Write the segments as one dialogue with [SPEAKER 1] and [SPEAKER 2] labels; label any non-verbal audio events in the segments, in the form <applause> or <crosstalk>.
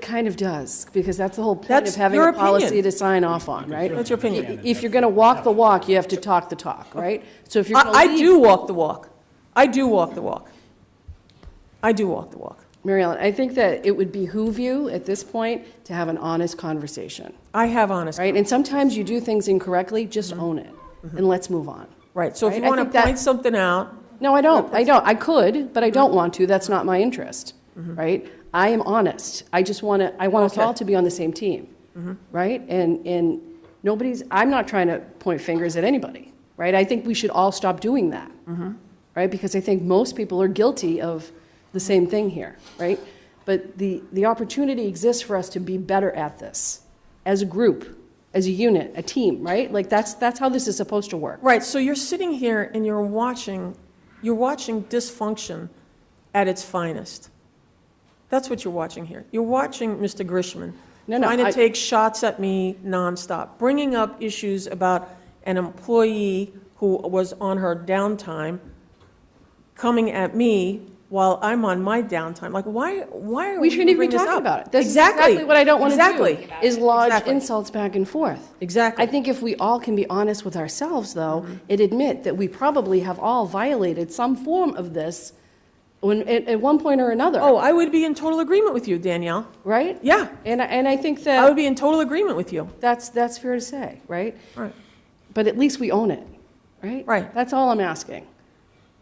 [SPEAKER 1] kind of does, because that's the whole point of
[SPEAKER 2] That's
[SPEAKER 1] having
[SPEAKER 2] your
[SPEAKER 1] a policy
[SPEAKER 2] opinion.
[SPEAKER 1] to sign off on, right?
[SPEAKER 2] That's your opinion.
[SPEAKER 1] If you're going to walk the walk, you have to talk the talk, right? So if you're
[SPEAKER 2] I,
[SPEAKER 1] going to
[SPEAKER 2] I do walk the walk. I do walk the walk. I do walk the walk.
[SPEAKER 1] Mary Ellen, I think that it would behoove you at this point to have an honest conversation,
[SPEAKER 2] I have honest,
[SPEAKER 1] right? And sometimes you do things incorrectly, just own it, and let's move on.
[SPEAKER 2] Mm-hmm. right, so if you
[SPEAKER 1] Right, I
[SPEAKER 2] want
[SPEAKER 1] think
[SPEAKER 2] to
[SPEAKER 1] that-
[SPEAKER 2] point something out,
[SPEAKER 1] No, I don't. I don't. I could, but I don't want to. That's not my interest, right? I am honest. I just want to. I want us
[SPEAKER 2] Okay.
[SPEAKER 1] all to be on the same team, right? And and nobody's. I'm not trying to point fingers at anybody, right? I think we should all stop doing that, right? Because I think most people are guilty of the same thing here, right? But the the opportunity exists for us to be better at this, as a group, as a unit, a team, right? Like that's that's how this is supposed to work.
[SPEAKER 2] Right, so you're sitting here and you're watching, you're watching dysfunction at its finest. That's what you're watching here. You're watching Mr. Grishman
[SPEAKER 1] No, no,
[SPEAKER 2] trying to
[SPEAKER 1] I-
[SPEAKER 2] take shots at me nonstop, bringing up issues about an employee who was on her downtime, coming at me while I'm on my downtime. Like, why, why are we
[SPEAKER 1] We shouldn't even
[SPEAKER 2] bringing
[SPEAKER 1] be
[SPEAKER 2] this
[SPEAKER 1] talking
[SPEAKER 2] up?
[SPEAKER 1] about it. That's exactly what I don't want to
[SPEAKER 2] Exactly.
[SPEAKER 1] do, is lodge
[SPEAKER 2] Exactly.
[SPEAKER 1] insults back and forth.
[SPEAKER 2] Exactly.
[SPEAKER 1] I think if we all can be honest with ourselves, though,
[SPEAKER 2] Mm-hmm.
[SPEAKER 1] and admit that we probably have all violated some form of this when, at, at one point or another,
[SPEAKER 2] Oh, I would be in total agreement with you, Danielle.
[SPEAKER 1] right?
[SPEAKER 2] Yeah,
[SPEAKER 1] And, I- and I think
[SPEAKER 2] I would
[SPEAKER 1] that,
[SPEAKER 2] be in total agreement with you.
[SPEAKER 1] that's, that's fair to say, right?
[SPEAKER 2] All right.
[SPEAKER 1] But at least we own it, right?
[SPEAKER 2] Right.
[SPEAKER 1] That's all I'm asking.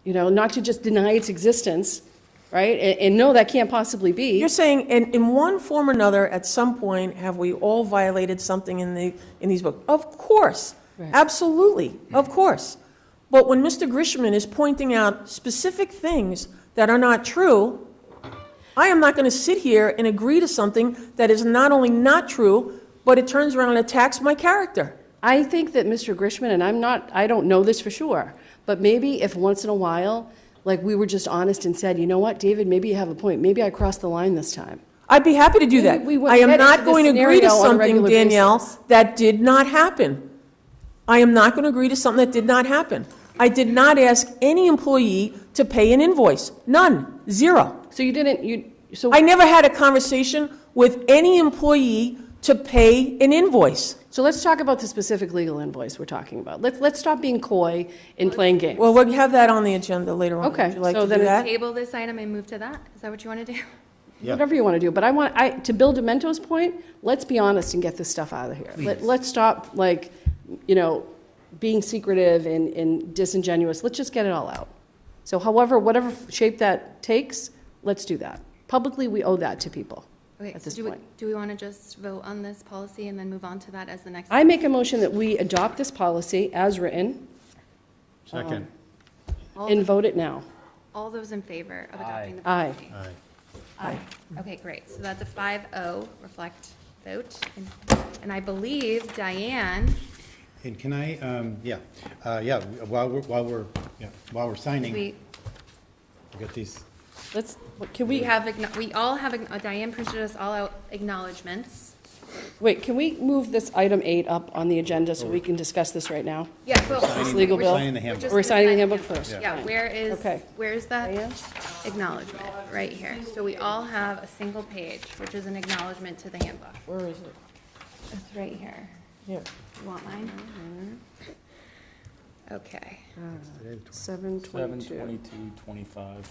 [SPEAKER 1] You know, not to just deny its existence, right? And, and no, that can't possibly be.
[SPEAKER 2] You're saying, in, in one form or another, at some point, have we all violated something in the, in these books? Of course, absolutely, of course. But when Mr. Grishman is pointing out specific things that are not true, I am not going to sit here and agree to something that is not only not true, but it turns around and attacks my character.
[SPEAKER 1] I think that Mr. Grishman, and I'm not, I don't know this for sure, but maybe if once in a while, like we were just honest and said, you know what, David, maybe you have a point. Maybe I crossed the line this time.
[SPEAKER 2] I'd be happy to do that.
[SPEAKER 1] We- we would
[SPEAKER 2] I am
[SPEAKER 1] get
[SPEAKER 2] not
[SPEAKER 1] into this
[SPEAKER 2] going to agree to
[SPEAKER 1] scenario on a
[SPEAKER 2] something,
[SPEAKER 1] regular
[SPEAKER 2] Danielle,
[SPEAKER 1] basis.
[SPEAKER 2] that did not happen. I am not going to agree to something that did not happen. I did not ask any employee to pay an invoice. None. Zero.
[SPEAKER 1] So you didn't, you, so,
[SPEAKER 2] I never had a conversation with any employee to pay an invoice.
[SPEAKER 1] so let's talk about the specific legal invoice we're talking about. Let's, let's stop being coy and playing games.
[SPEAKER 2] Well, we'll have that on the agenda later on.
[SPEAKER 1] Okay,
[SPEAKER 2] Would you like
[SPEAKER 1] so
[SPEAKER 2] to do
[SPEAKER 1] then it's
[SPEAKER 2] that?
[SPEAKER 3] Table this item and move to that? Is that what you want to do? <laughs>
[SPEAKER 1] whatever you want to do. But I want, I, to Bill Demento's point, let's be honest and get this stuff out of here. Let, let's stop, like, you know, being secretive and, and disingenuous. Let's just get it all out. So however, whatever shape that takes, let's do that. Publicly, we owe that to people
[SPEAKER 3] Okay,
[SPEAKER 1] at
[SPEAKER 3] so
[SPEAKER 1] this
[SPEAKER 3] do we,
[SPEAKER 1] point.
[SPEAKER 3] do we want to just vote on this policy and then move on to that as the next?
[SPEAKER 1] I make a motion that we adopt this policy as written
[SPEAKER 4] Second.
[SPEAKER 3] All
[SPEAKER 1] and vote it now.
[SPEAKER 3] All those in favor of adopting the
[SPEAKER 1] Aye.
[SPEAKER 3] policy?
[SPEAKER 4] Aye.
[SPEAKER 3] Aye. Okay, great. So that's a 5-0 reflect vote. And- And I believe Diane,
[SPEAKER 4] And can I, um, yeah, uh, yeah, while we're, while we're, yeah, while we're signing, we
[SPEAKER 3] we,
[SPEAKER 4] got these,
[SPEAKER 1] Let's, what- can
[SPEAKER 3] we
[SPEAKER 1] we,
[SPEAKER 3] have, acknow- we all have, acknow- Diane printed us all out acknowledgements.
[SPEAKER 1] wait, can we move this item eight up on the agenda so we can discuss this right now?
[SPEAKER 3] Yeah, but.
[SPEAKER 1] This legal
[SPEAKER 3] we're-
[SPEAKER 1] bill?
[SPEAKER 4] signing the
[SPEAKER 3] we're
[SPEAKER 4] handbook.
[SPEAKER 3] just
[SPEAKER 1] We're signing the
[SPEAKER 3] signing
[SPEAKER 1] handbook first.
[SPEAKER 3] Yeah, where is,
[SPEAKER 1] Okay.
[SPEAKER 3] where is that
[SPEAKER 1] Diane?
[SPEAKER 3] acknowledgement? Right here. So we all have a single page, which is an acknowledgement to the handbook.
[SPEAKER 2] Where is it?
[SPEAKER 3] It's right here.
[SPEAKER 2] Yeah.
[SPEAKER 3] You want mine?
[SPEAKER 1] Mm-hmm.
[SPEAKER 3] Okay.
[SPEAKER 1] Seven
[SPEAKER 5] Seven
[SPEAKER 1] twenty-two.
[SPEAKER 5] twenty-two twenty-five.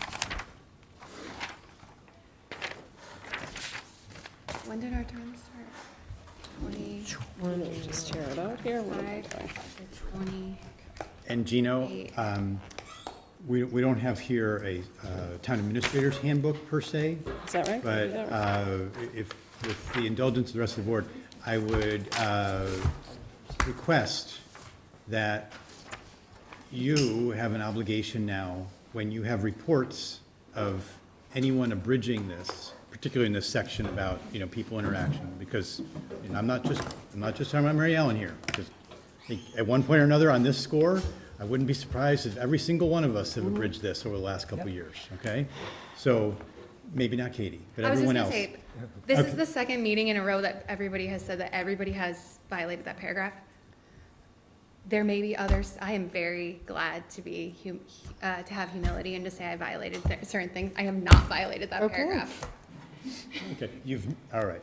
[SPEAKER 3] When did our term start? Twenty,
[SPEAKER 1] Why don't we just tear it out here? What am I doing?
[SPEAKER 3] twenty.
[SPEAKER 4] and Gino, um, we, we don't have here a, uh, town administrator's handbook per se,
[SPEAKER 1] Is that right?
[SPEAKER 4] but,
[SPEAKER 1] Is that right?
[SPEAKER 4] uh, if, with the indulgence of the rest of the board, I would, uh, request that you have an obligation now, when you have reports of anyone abridging this, particularly in this section about, you know, people interaction, because, and I'm not just, I'm not just talking about Mary Ellen here, because I think at one point or another on this score, I wouldn't be surprised if every single one of us have
[SPEAKER 3] Mm-hmm.
[SPEAKER 4] abridged this over the last couple of years, okay? So, maybe not Katie, but
[SPEAKER 3] I was just
[SPEAKER 4] everyone
[SPEAKER 3] gonna
[SPEAKER 4] else.
[SPEAKER 3] say, this is the second meeting in a row that everybody has said that everybody has violated that paragraph. There may be others, I am very glad to be, hum- uh, to have humility and to say I violated th- certain things. I have not violated that
[SPEAKER 1] Okay.
[SPEAKER 3] paragraph.
[SPEAKER 4] Okay, you've, all right.